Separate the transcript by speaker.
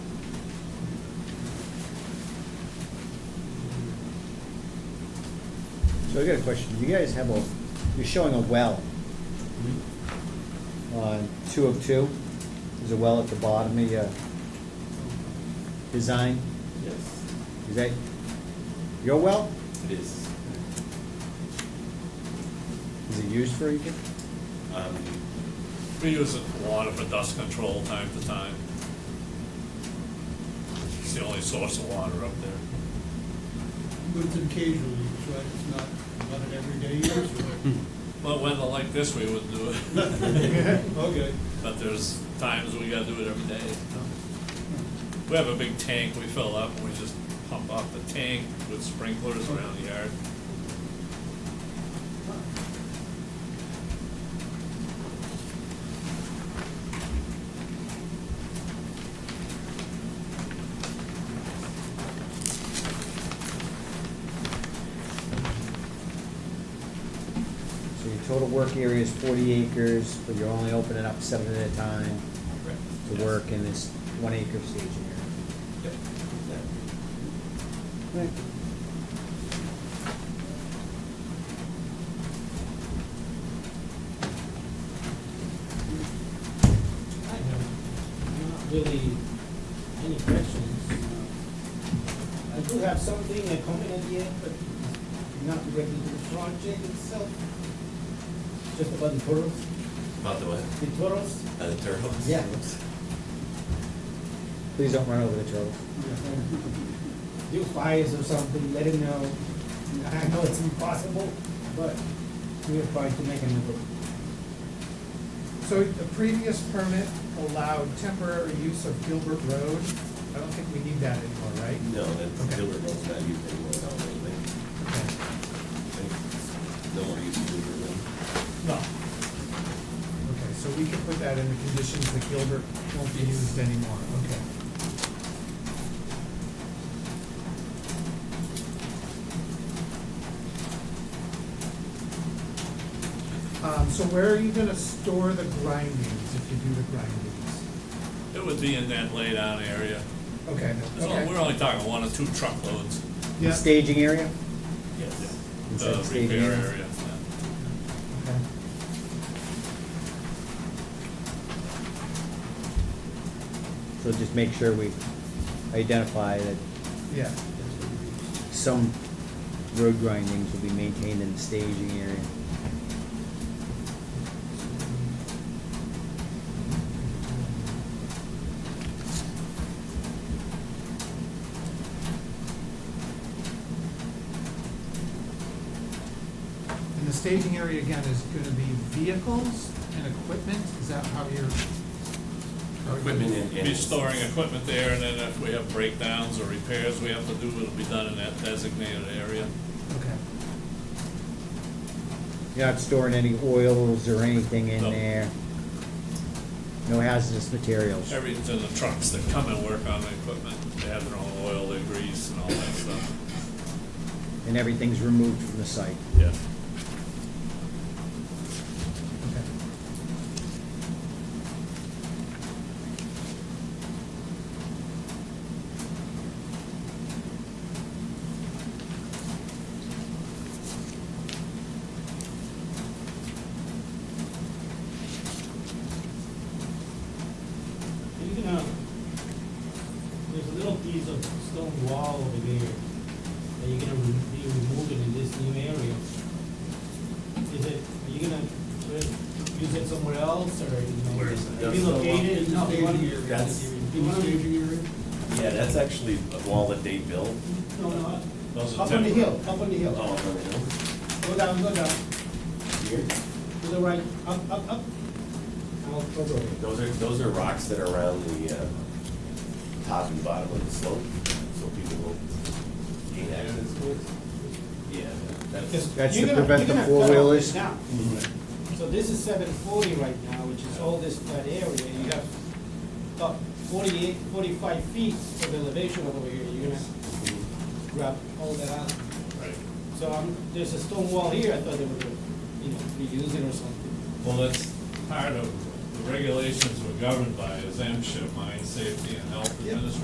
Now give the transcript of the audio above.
Speaker 1: So I got a question. You guys have a, you're showing a well on two of two. There's a well at the bottom of your design.
Speaker 2: Yes,
Speaker 1: Is that your well?
Speaker 2: it is.
Speaker 1: Is it used for anything?
Speaker 2: Um,
Speaker 3: We use it for water for dust control time to time. It's the only source of water up there.
Speaker 4: But it's occasionally, use, right? It's not, not an everyday use,
Speaker 2: Hmm.
Speaker 3: But weather like this, we would do it.
Speaker 4: right? Okay.
Speaker 3: But there's times we gotta do it every day. We have a big tank we fill up and we just pump off the tank with sprinklers around the yard.
Speaker 1: So your total work area is forty acres, but you're only opening up seven at a time to work in this one acre staging area.
Speaker 2: Yep. Exactly.
Speaker 5: I have not really any questions. I do have something, a comment at the end, but not directly to the project itself, just about the toros,
Speaker 2: About the what?
Speaker 5: the toros.
Speaker 2: Uh, the turtles?
Speaker 5: Yeah.
Speaker 1: Please don't run over the turtles.
Speaker 5: Do fires or something, let him know. I know it's impossible, but we are trying to make an effort.
Speaker 6: So the previous permit allowed temporary use of Gilbert Road. I don't think we need that anymore, right?
Speaker 2: No, that's,
Speaker 6: Okay.
Speaker 2: Gilbert Road's not used anymore, no, really.
Speaker 6: Okay.
Speaker 2: They- No more use of Gilbert Road.
Speaker 6: No. Okay, so we can put that in the conditions that Gilbert won't be used anymore, okay. Um, so where are you gonna store the grindings if you do the grindings?
Speaker 3: It would be in that laid out area.
Speaker 6: Okay,
Speaker 3: It's all-
Speaker 6: okay.
Speaker 3: We're only talking one or two truckloads.
Speaker 6: Yeah.
Speaker 1: Staging area?
Speaker 2: Yes.
Speaker 1: Inside
Speaker 3: The
Speaker 1: staging
Speaker 3: repair
Speaker 1: area.
Speaker 3: area. yeah.
Speaker 6: Okay.
Speaker 1: So just make sure we identify that
Speaker 6: Yeah.
Speaker 1: some road grindings will be maintained in the staging area.
Speaker 6: And the staging area again is gonna be vehicles and equipment, is that how you're? how you're-
Speaker 2: Equipment and. and-
Speaker 3: Be storing equipment there, and then if we have breakdowns or repairs we have to do, it'll be done in that designated area.
Speaker 6: Okay,
Speaker 1: You're not storing any oils or anything in
Speaker 3: No.
Speaker 1: there. No hazardous materials.
Speaker 3: Everything's in the trucks that come and work on the equipment. They have their own oil, their grease, and all that stuff.
Speaker 1: And everything's removed from the site.
Speaker 3: Yeah.
Speaker 6: okay.
Speaker 5: You can, uh, there's a little piece of stone wall over there that you're gonna re- be removing in this new area. Is it, are you gonna sort of use it somewhere else, or, you know?
Speaker 2: Where is it?
Speaker 5: Relocate it?
Speaker 4: In
Speaker 5: No,
Speaker 4: the
Speaker 5: you wanna-
Speaker 4: staging area.
Speaker 2: That's-
Speaker 4: In the staging area?
Speaker 2: Yeah, that's actually a wall that they built.
Speaker 5: No, no,
Speaker 3: Those
Speaker 5: up up
Speaker 3: are
Speaker 5: on the
Speaker 3: temporary.
Speaker 5: hill, up on the
Speaker 2: Oh,
Speaker 5: hill.
Speaker 2: no, no,
Speaker 5: Go down, go down,
Speaker 2: here.
Speaker 5: to the right, up, up, up. Now, go over it.
Speaker 2: Those are, those are rocks that are around the, uh, top and bottom of the slope, so people will gain access to it. Yeah, that's.
Speaker 5: Because
Speaker 1: That's
Speaker 5: you're
Speaker 1: to
Speaker 5: gonna-
Speaker 1: prevent
Speaker 5: you're
Speaker 1: the
Speaker 5: gonna cut off this
Speaker 1: four-wheelers? Mm-hmm.
Speaker 5: now. So this is seven forty right now, which is all this flat area, you have about 48, 45 feet of elevation over here, you're gonna
Speaker 1: Mm-hmm.
Speaker 5: grab all that out.
Speaker 3: Right.
Speaker 5: So, um, there's a stone wall here, I thought they were, gonna, you know, reuse it or something.
Speaker 3: Well, that's part of the regulations we're governed by is MSHA, Mine Safety and Health
Speaker 6: Yep.
Speaker 3: Administration.